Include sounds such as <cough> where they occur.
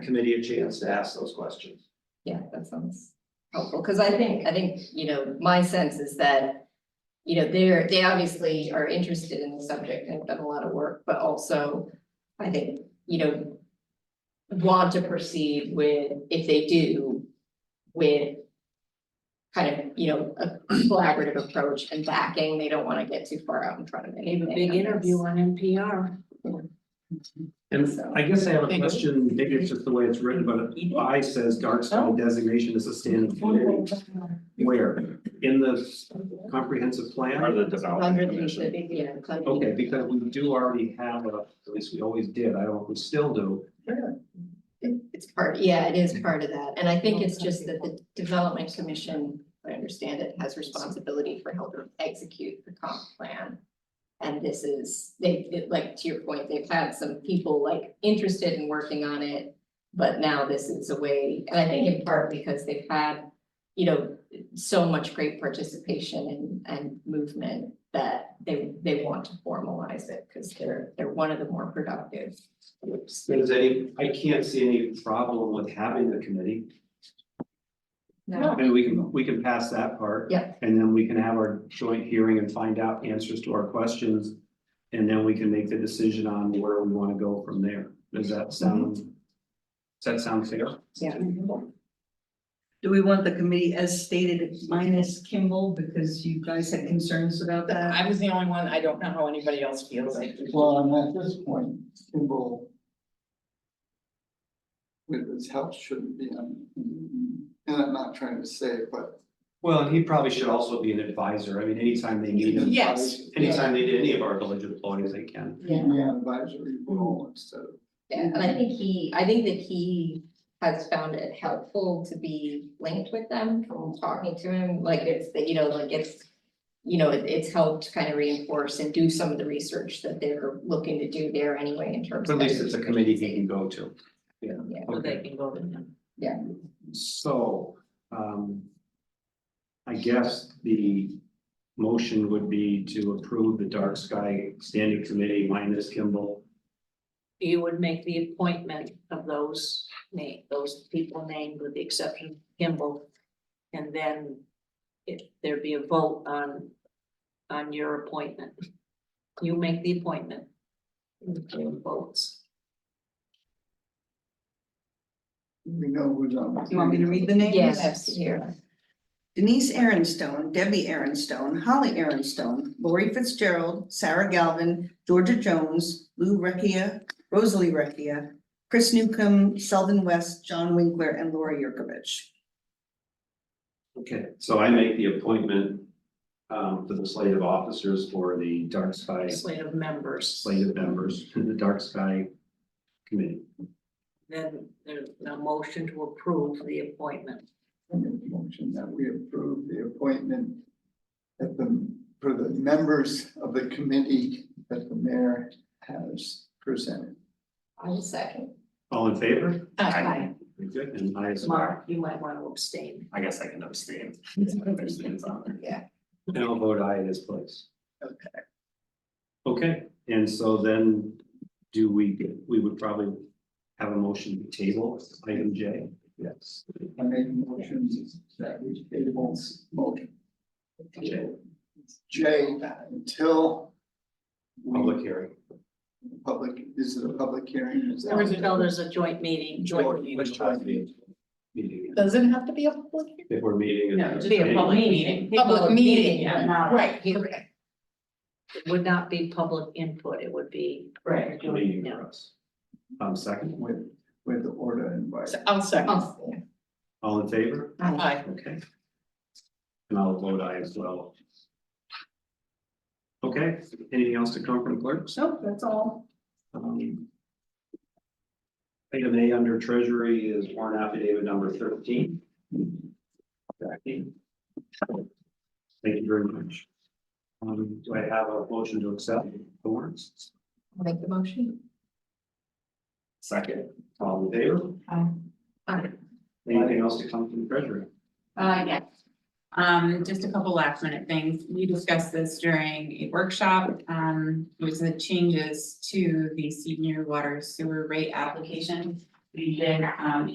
committee a chance to ask those questions. Yeah, that sounds helpful, because I think, I think, you know, my sense is that. You know, they're, they obviously are interested in the subject and have done a lot of work, but also, I think, you know. Want to proceed with, if they do, with. Kind of, you know, a collaborative approach and backing, they don't want to get too far out in front of it. Gave a big interview on NPR. And So- I guess I have a Thank you. question, maybe it's just the way it's written, but I says Darkstone designation is a standard community. Where? In the comprehensive Or plan? the development Underneath the commission. big, you know, kind of- Okay, because we do already have a, at least we always did, I don't, we still do. It- It's part, yeah, it is part of that, and I think it's just that the development commission, I understand it, has responsibility for helping execute the comp plan. And this is, they, it- like, to your point, they've had some people like interested in working on it. But now this is a way, and I think in part because they've had, you know, so much great participation and, and movement. That they, they want to formalize it, because they're, they're one of the more productive groups. There's any, I can't see any problem with having a committee. No. And we can, we can pass that part. Yeah. And then we can have our joint hearing and find out answers to our questions. And then we can make the decision on where we want to go from there. Does that sound? Does that sound fair? Do we want the committee as stated minus Kimball because you guys had concerns about that? I was the only one, I don't know how anybody else feels, I Well, and at this point, Kimball. With his help shouldn't be, on- and I'm not trying to say it, but. Well, and he probably should also be an advisor. I mean, anytime they need him, Yes. anytime they need any of our village employees, they can. Keep me on advisory role instead of, Yeah, and I think he, I think that he has found it helpful to be linked with them from talking to him, like it's, the- you know, like it's. You know, it- it's helped kind of reinforce and do some of the research that they're looking to do there anyway in terms But at of. least it's a committee he can go to. Yeah. Yeah. Okay. can go to them. So, um. I guess the motion would be to approve the dark sky standing committee minus Kimball. you would make the appointment of those name, those people named with the exception of Kimball. And then if there be a vote on, on your appointment, you make the appointment. And the chair votes. we know who's on. the You want me to read the names? Yes, here, Denise Aaronstone, Debbie Aaronstone, Holly Aaronstone, Lori Fitzgerald, Sarah Galvin, Georgia Jones, Lou Recchia, Rosalie Recchia, Chris Newcomb, Sheldon West, John Winkler, and Laura Yurkovich. Okay, so I make the appointment. Um, for the slate of officers for the dark sky Slate of members, slate of members to the dark sky committee. then there's a motion to approve the appointment. I make a Motion that we approve the appointment. At the, for the members of the committee that the mayor has presented. I will second. All in favor? Aye. Very Good, and I as well. Mark, you might want to abstain. I guess I <laughs> can abstain. There's names on there. And I'll vote aye in this place. Okay. Okay, and so then do we, we would probably have a motion to table item J? Yes. I make a motion that we table motion J, J until. we- public hearing. Public, is it a public hearing? Is that- Until there's a joint meeting, joint meeting. Which time be- Meeting, Does it have to be a public? hearing? if we're meeting. No, just be a public meeting. Public meeting, yeah. Right, okay. It would not be public input, it would be. Right. Meeting for us. Um, second, With, with the order invited. So I'll second. Oh, yeah. all in favor? Aye. Okay. And I'll vote aye as well. Okay, anything else to come from clerks? So that's all. Um, Item A under treasury is warrant affidavit number thirteen. Jackie. Thank you very much. Um, do I have a motion to accept the warrants? I'll Make the motion. Second, All in favor? Aye. Anything else to come from treasury? Uh, yes. Um, just a couple last minute things. We discussed this during a workshop. Um, it was the changes to the senior water sewer rate application. we did, um,